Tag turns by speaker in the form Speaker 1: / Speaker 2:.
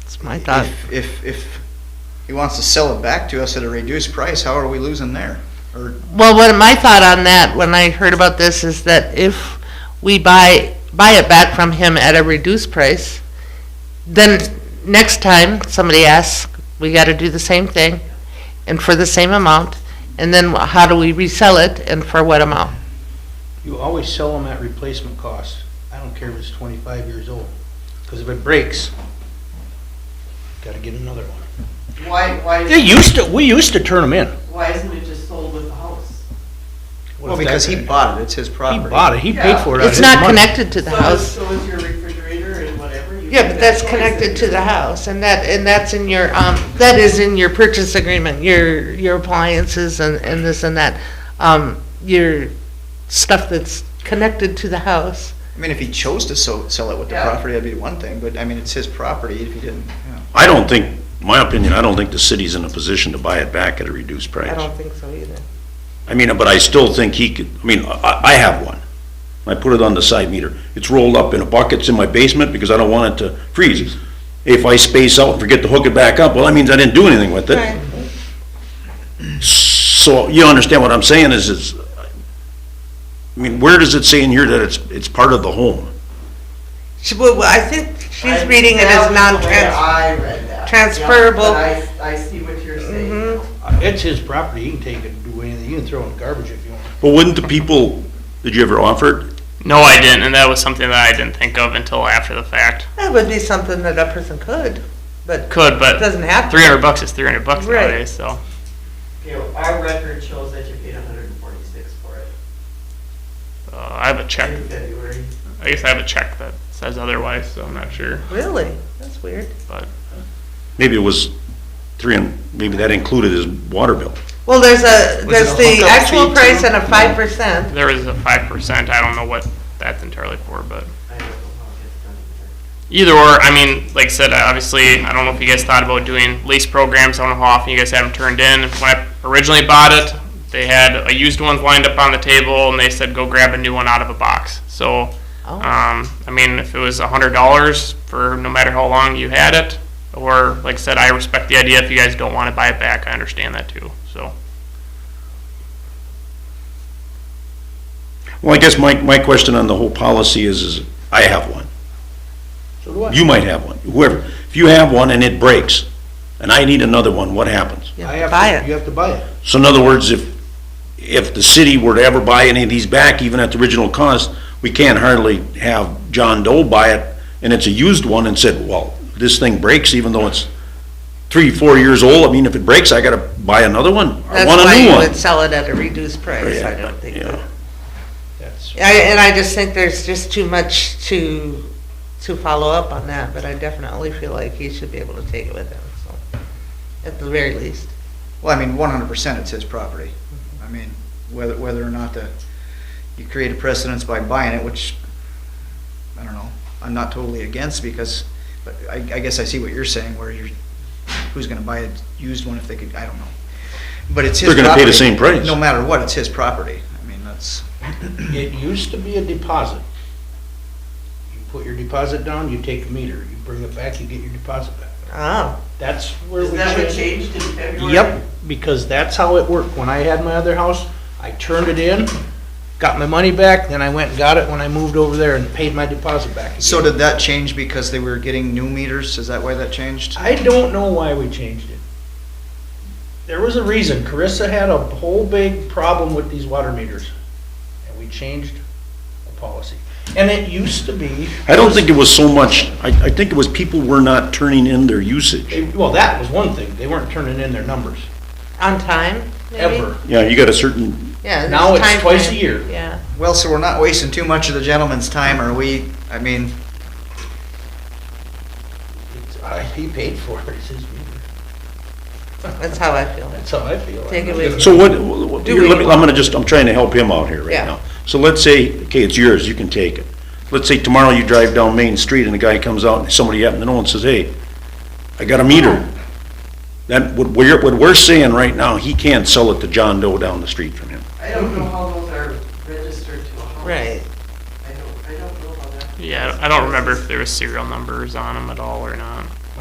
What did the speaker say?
Speaker 1: That's my thought.
Speaker 2: If, if, if he wants to sell it back to us at a reduced price, how are we losing there? Or,
Speaker 1: Well, what my thought on that when I heard about this is that if we buy buy it back from him at a reduced price, then next time somebody asks, we got to do the same thing, and for the same amount. And then wh- how do we resell it, and for what amount?
Speaker 3: You always sell them at replacement cost. I don't care if it's twenty-five years old, because if it breaks, gotta get another one.
Speaker 4: Why,
Speaker 3: They
Speaker 4: why,
Speaker 3: used to, we used to turn them in.
Speaker 4: why isn't it just sold with the house?
Speaker 3: What
Speaker 2: well,
Speaker 3: if
Speaker 2: because
Speaker 3: that-
Speaker 2: he bought it, it's his property.
Speaker 3: He bought it, he paid for it out of
Speaker 1: It's
Speaker 3: his
Speaker 1: not
Speaker 3: money.
Speaker 1: connected to the
Speaker 4: So-
Speaker 1: house.
Speaker 4: So is your refrigerator and whatever. you
Speaker 1: Yeah,
Speaker 4: can-
Speaker 1: but that's connected to the house, and that, and that's in your, um, that is in your purchase agreement, your, your appliances and, and this and that. Um, your stuff that's connected to the house.
Speaker 2: I mean, if he chose to so, sell it with the
Speaker 4: Yeah.
Speaker 2: property, that'd be one thing, but I mean, it's his property if he didn't, you know.
Speaker 5: I don't think, my opinion, I don't think the city's in a position to buy it back at a reduced
Speaker 1: I
Speaker 5: price.
Speaker 1: don't think so either.
Speaker 5: I mean, but I still think he could, I mean, I, I have one. I put it on the side meter. It's rolled up in a bucket, it's in my basement because I don't want it to freeze. If I space out and forget to hook it back up, well, that means I didn't do anything with it. So you understand what I'm saying is, is, I mean, where does it say in here that it's, it's part of the home?
Speaker 1: She, well, I think she's
Speaker 4: I-
Speaker 1: reading it
Speaker 4: that
Speaker 1: as
Speaker 4: was the way
Speaker 1: non-trans.
Speaker 4: I read that.
Speaker 1: transferable. Mm-hmm.
Speaker 4: Yeah, but I, I see what you're saying.
Speaker 3: Uh, It's his property, he can take it, do anything, you can throw it in the garbage if you want.
Speaker 5: But wouldn't the people, did you ever offer it?
Speaker 6: No, I didn't, and that was something that I didn't think of until after the fact.
Speaker 1: That would be something that a person could, but
Speaker 6: Could,
Speaker 1: it
Speaker 6: but
Speaker 1: doesn't have to.
Speaker 6: three hundred bucks is three hundred bucks
Speaker 1: Right.
Speaker 6: nowadays. So
Speaker 4: You know, our record shows that you paid hundred and forty-six for it
Speaker 6: uh, I have a check.
Speaker 4: in February.
Speaker 6: I guess I have a check that says otherwise, so I'm not sure.
Speaker 1: Really? That's weird.
Speaker 5: Maybe it was three and, maybe that included his water bill.
Speaker 1: Well, there's a,
Speaker 3: Was
Speaker 1: there's
Speaker 3: it a
Speaker 1: the
Speaker 3: hookup
Speaker 1: actual
Speaker 3: fee
Speaker 1: price
Speaker 3: too?
Speaker 1: and a five percent.
Speaker 6: There is a five percent. I don't know what that's entirely for, but
Speaker 4: I don't know how it gets done here.
Speaker 6: either or. I mean, like I said, I obviously, I don't know if you guys thought about doing lease programs. I don't know how often you guys have them turned in. When I originally bought it, they had a used one lined up on the table, and they said go grab a new one out of a box. So Um, I mean, if it was a hundred dollars for no matter how long you had it, or like I said, I respect the idea. If you guys don't want to buy it back, I understand that too. So
Speaker 5: Well, I guess my, my question on the whole policy is, is I have one.
Speaker 3: So do I.
Speaker 5: You might have one, whoever. If you have one and it breaks, and I need another one, what happens?
Speaker 1: You
Speaker 3: I
Speaker 1: have to buy it.
Speaker 3: You have to buy it.
Speaker 5: So in other words, if, if the city were to ever buy any of these back, even at the original cost, we can't hardly have John Doe buy it, and it's a used one, and said, well, this thing breaks even though it's three, four years old, I mean, if it breaks, I gotta buy another one. I
Speaker 1: That's
Speaker 5: want
Speaker 1: why
Speaker 5: a new
Speaker 1: you
Speaker 5: one.
Speaker 1: would sell it at a reduced price, I
Speaker 5: Yeah,
Speaker 1: don't think.
Speaker 5: yeah.
Speaker 1: that-
Speaker 3: That's,
Speaker 1: I, and I just think there's just too much to, to follow up on that, but I definitely feel like he should be able to take it with him, so, at the very least.
Speaker 2: Well, I mean, one hundred percent it's his property. I mean, whether, whether or not the, you create a precedence by buying it, which, I don't know, I'm not totally against because, but I, I guess I see what you're saying where you're, who's gonna buy a used one if they could, I don't know. But it's his
Speaker 5: They're gonna pay the
Speaker 2: property.
Speaker 5: same price.
Speaker 2: No matter what, it's his property. I mean, that's,
Speaker 3: it used to be a deposit. You put your deposit down, you take a meter, you bring it back, you get your deposit back.
Speaker 1: Oh,
Speaker 3: That's where
Speaker 4: Is
Speaker 3: we
Speaker 4: that what
Speaker 3: changed.
Speaker 4: changed in February?
Speaker 3: Yep, because that's how it worked. When I had my other house, I turned it in, got my money back, then I went and got it when I moved over there and paid my deposit back. again.
Speaker 2: so did that change because they were getting new meters? Is that why that changed?
Speaker 3: I don't know why we changed it. There was a reason. Carissa had a whole big problem with these water meters, and we changed the policy. And it used to be.
Speaker 5: I don't think it was so much, I, I think it was people were not turning in their usage.
Speaker 3: Well, that was one thing. They weren't turning in their numbers,
Speaker 1: on time, maybe?
Speaker 3: ever.
Speaker 5: Yeah, you got a certain,
Speaker 1: Yeah. there's
Speaker 3: Now it's
Speaker 1: time
Speaker 3: twice a
Speaker 1: frame.
Speaker 3: year.
Speaker 1: Yeah.
Speaker 2: Well, so we're not wasting too much of the gentleman's time, are we? I mean,
Speaker 3: It's- I- He paid for it, it's his meter.
Speaker 1: That's how I feel.
Speaker 3: That's how I feel.
Speaker 1: Take it with you.
Speaker 5: so what, what-
Speaker 1: Do
Speaker 5: here, let
Speaker 1: we-
Speaker 5: me, I'm gonna just, I'm trying to help him out here
Speaker 1: Yeah.
Speaker 5: right now. So let's say, okay, it's yours, you can take it. Let's say tomorrow you drive down Main Street and a guy comes out, and somebody you happen to know and says, hey, I got a meter. That, what we're, what we're saying right now, he can't sell it to John Doe down the street from him.
Speaker 4: I don't know how those are registered to a house.
Speaker 1: Right.
Speaker 4: I don't, I don't know how that.
Speaker 6: yeah, I don't remember if there was serial numbers on them at all or not.